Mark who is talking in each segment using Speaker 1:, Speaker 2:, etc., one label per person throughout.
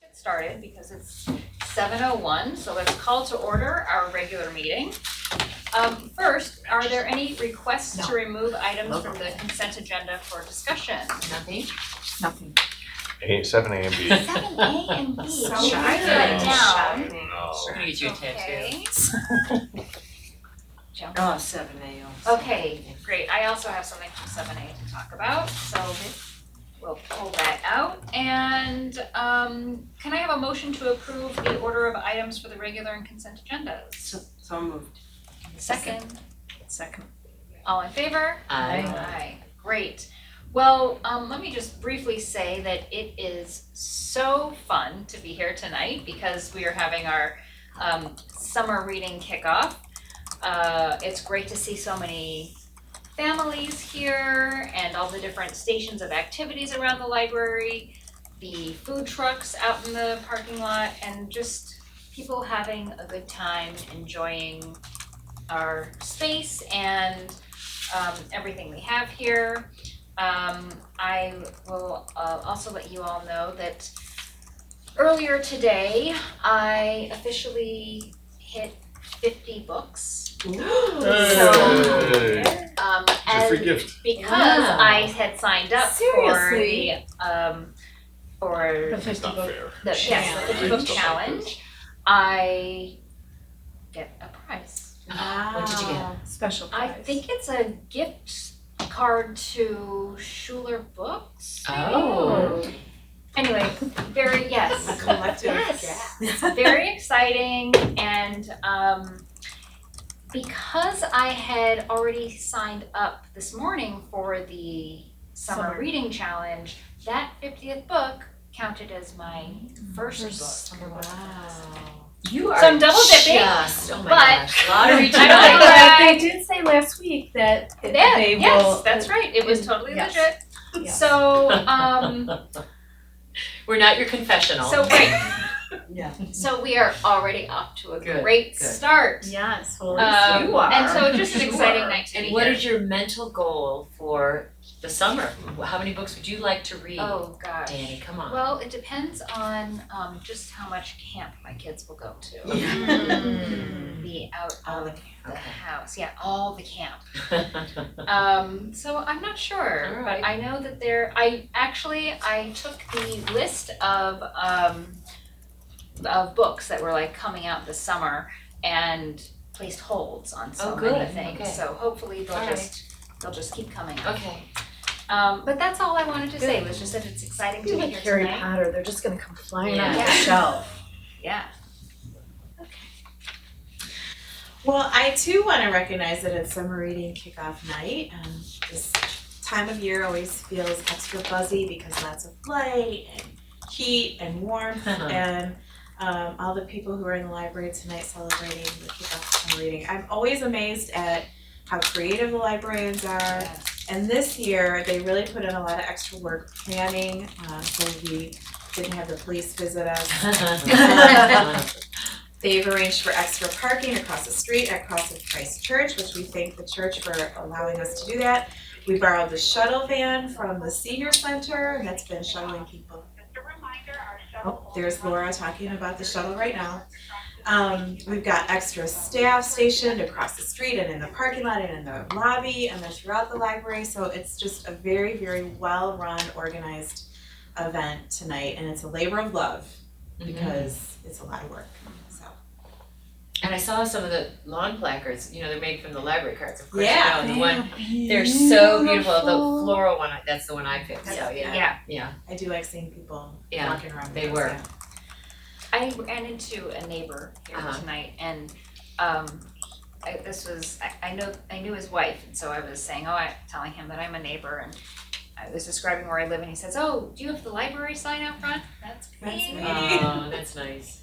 Speaker 1: get started because it's seven oh one, so let's call to order our regular meeting. Um, first, are there any requests to remove items from the consent agenda for discussion?
Speaker 2: Nothing? Nothing.
Speaker 3: A seven A and B.
Speaker 1: Seven A and B,
Speaker 2: So
Speaker 1: should I write that
Speaker 3: shocking.
Speaker 1: down?
Speaker 2: We're gonna get you a tattoo.
Speaker 1: Okay. Jump.
Speaker 2: Oh, seven A also.
Speaker 1: Okay, great, I also have something from seven A to talk about, so we'll pull that out. And um can I have a motion to approve the order of items for the regular and consent agendas?
Speaker 2: So, so moved.
Speaker 1: Second,
Speaker 2: Second.
Speaker 1: all in favor?
Speaker 2: I.
Speaker 1: Aye, great. Well, um, let me just briefly say that it is so fun to be here tonight because we are having our um summer reading kickoff. Uh, it's great to see so many families here and all the different stations of activities around the library, the food trucks out in the parking lot, and just people having a good time, enjoying our space and um everything we have here. Um I will uh also let you all know that earlier today, I officially hit fifty books.
Speaker 3: Hey.
Speaker 1: Um
Speaker 4: It's a
Speaker 1: and
Speaker 4: free gift.
Speaker 1: because
Speaker 2: Wow.
Speaker 1: I had signed up for the
Speaker 2: Seriously?
Speaker 1: um for
Speaker 4: It's not fair.
Speaker 1: the yes, the
Speaker 2: Challenge.
Speaker 1: fifty book challenge, I get a prize.
Speaker 2: What did you get?
Speaker 5: Special
Speaker 1: Ah. I
Speaker 5: prize.
Speaker 1: think it's a gift card to Schuler Books.
Speaker 2: Oh.
Speaker 1: Anyway, very yes.
Speaker 2: Collective.
Speaker 1: Yes. very exciting and um because I had already signed up this morning for the summer,
Speaker 5: Summer.
Speaker 1: reading challenge, that 50th book counted as my first, book.
Speaker 2: Wow.
Speaker 1: You So I'm double dipping.
Speaker 2: Just, oh my
Speaker 1: but-
Speaker 2: gosh, lottery
Speaker 1: I don't know
Speaker 2: ticket.
Speaker 1: that I-
Speaker 5: They did say last week that
Speaker 1: Yeah,
Speaker 5: they will. uh,
Speaker 1: yes, that's right. It was totally
Speaker 5: Yes.
Speaker 1: legit.
Speaker 5: Yeah.
Speaker 1: So um
Speaker 2: We're not your confessional.
Speaker 1: so right.
Speaker 5: Yeah.
Speaker 1: So we are already off to a
Speaker 2: Good,
Speaker 1: great
Speaker 2: good.
Speaker 1: start.
Speaker 5: Yes, well,
Speaker 1: Um,
Speaker 5: you are.
Speaker 1: And so it's just an
Speaker 5: You
Speaker 1: exciting
Speaker 5: are.
Speaker 1: night to be
Speaker 2: And
Speaker 1: here.
Speaker 2: what is your mental goal for the summer? How many books would you like to read?
Speaker 1: Oh gosh.
Speaker 2: Danny, come on.
Speaker 1: Well, it depends on um just how much camp my kids will go to.
Speaker 2: Mm.
Speaker 1: Be out
Speaker 2: All
Speaker 1: of
Speaker 2: the
Speaker 1: the
Speaker 2: okay.
Speaker 1: house, yeah, all the camp. Um so I'm not sure,
Speaker 2: All
Speaker 1: but
Speaker 2: right.
Speaker 1: I know that there, I actually, I took the list of um of books that were like coming out this summer and placed holds on so
Speaker 2: Oh,
Speaker 1: many
Speaker 2: good,
Speaker 1: things,
Speaker 2: okay.
Speaker 1: so hopefully
Speaker 2: All
Speaker 1: they'll
Speaker 2: right.
Speaker 1: just, they'll just keep coming out.
Speaker 2: Okay.
Speaker 1: Um but that's all I wanted to say, was just that it's exciting to
Speaker 5: You're
Speaker 1: be
Speaker 5: like
Speaker 1: here
Speaker 5: Harry
Speaker 1: tonight.
Speaker 5: Potter, they're just gonna come flying out of
Speaker 1: Yeah.
Speaker 5: the shelf.
Speaker 1: Yeah.
Speaker 6: Well, I too want to recognize that it's summer reading kickoff night. Um, this time of year always feels extra buzzy because lots of light and heat and warmth
Speaker 2: Uh-huh.
Speaker 6: and um, all the people who are in the library tonight celebrating the kickoff of summer reading. I'm always amazed at how creative the librarians are. And this year, they really put in a lot of extra work planning, uh, so we didn't have the police visit us They've arranged for extra parking across the street at Cross of Christ Church, which we thank the church for allowing us to do that. We borrowed the shuttle van from the senior center, and that's been shuttling people. Oh, there's Laura talking about the shuttle right now. Um, we've got extra staff stationed across the street and in the parking lot and in the lobby and then throughout the library, so it's just a very, very well-run, organized event tonight, and it's a labor of love
Speaker 2: Mm-hmm.
Speaker 6: because it's a lot of work, so.
Speaker 2: And I saw some of the lawn placards, you know, they're made from the library cards, of course, you
Speaker 6: Yeah.
Speaker 2: know, the one, they're so beautiful, the floral one, that's the one I picked, so,
Speaker 6: Yeah.
Speaker 2: yeah,
Speaker 1: Yeah,
Speaker 2: yeah,
Speaker 6: I do like seeing people
Speaker 2: Yeah,
Speaker 6: walking around.
Speaker 2: they
Speaker 6: with
Speaker 2: were.
Speaker 6: us,
Speaker 1: I ran into a neighbor here
Speaker 2: Uh-huh.
Speaker 1: tonight and um I this was I I know I knew his wife and so I was saying, oh, I telling him that I'm a neighbor and I was describing where I live and he says, oh, do you have the library sign out front? That's
Speaker 6: That's
Speaker 1: me.
Speaker 6: me.
Speaker 2: oh, that's nice.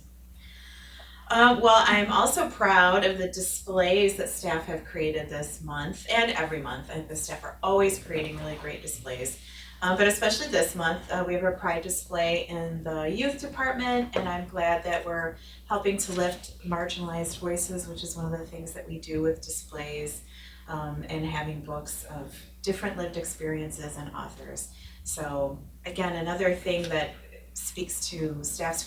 Speaker 6: yeah. Um, well, I'm also proud of the displays that staff have created this month and every month. I think the staff are always creating really great displays. Uh, but especially this month, uh, we have a pride display in the youth department, and I'm glad that we're helping to lift marginalized voices, which is one of the things that we do with displays um, and having books of different lived experiences and authors. So, again, another thing that speaks to staff's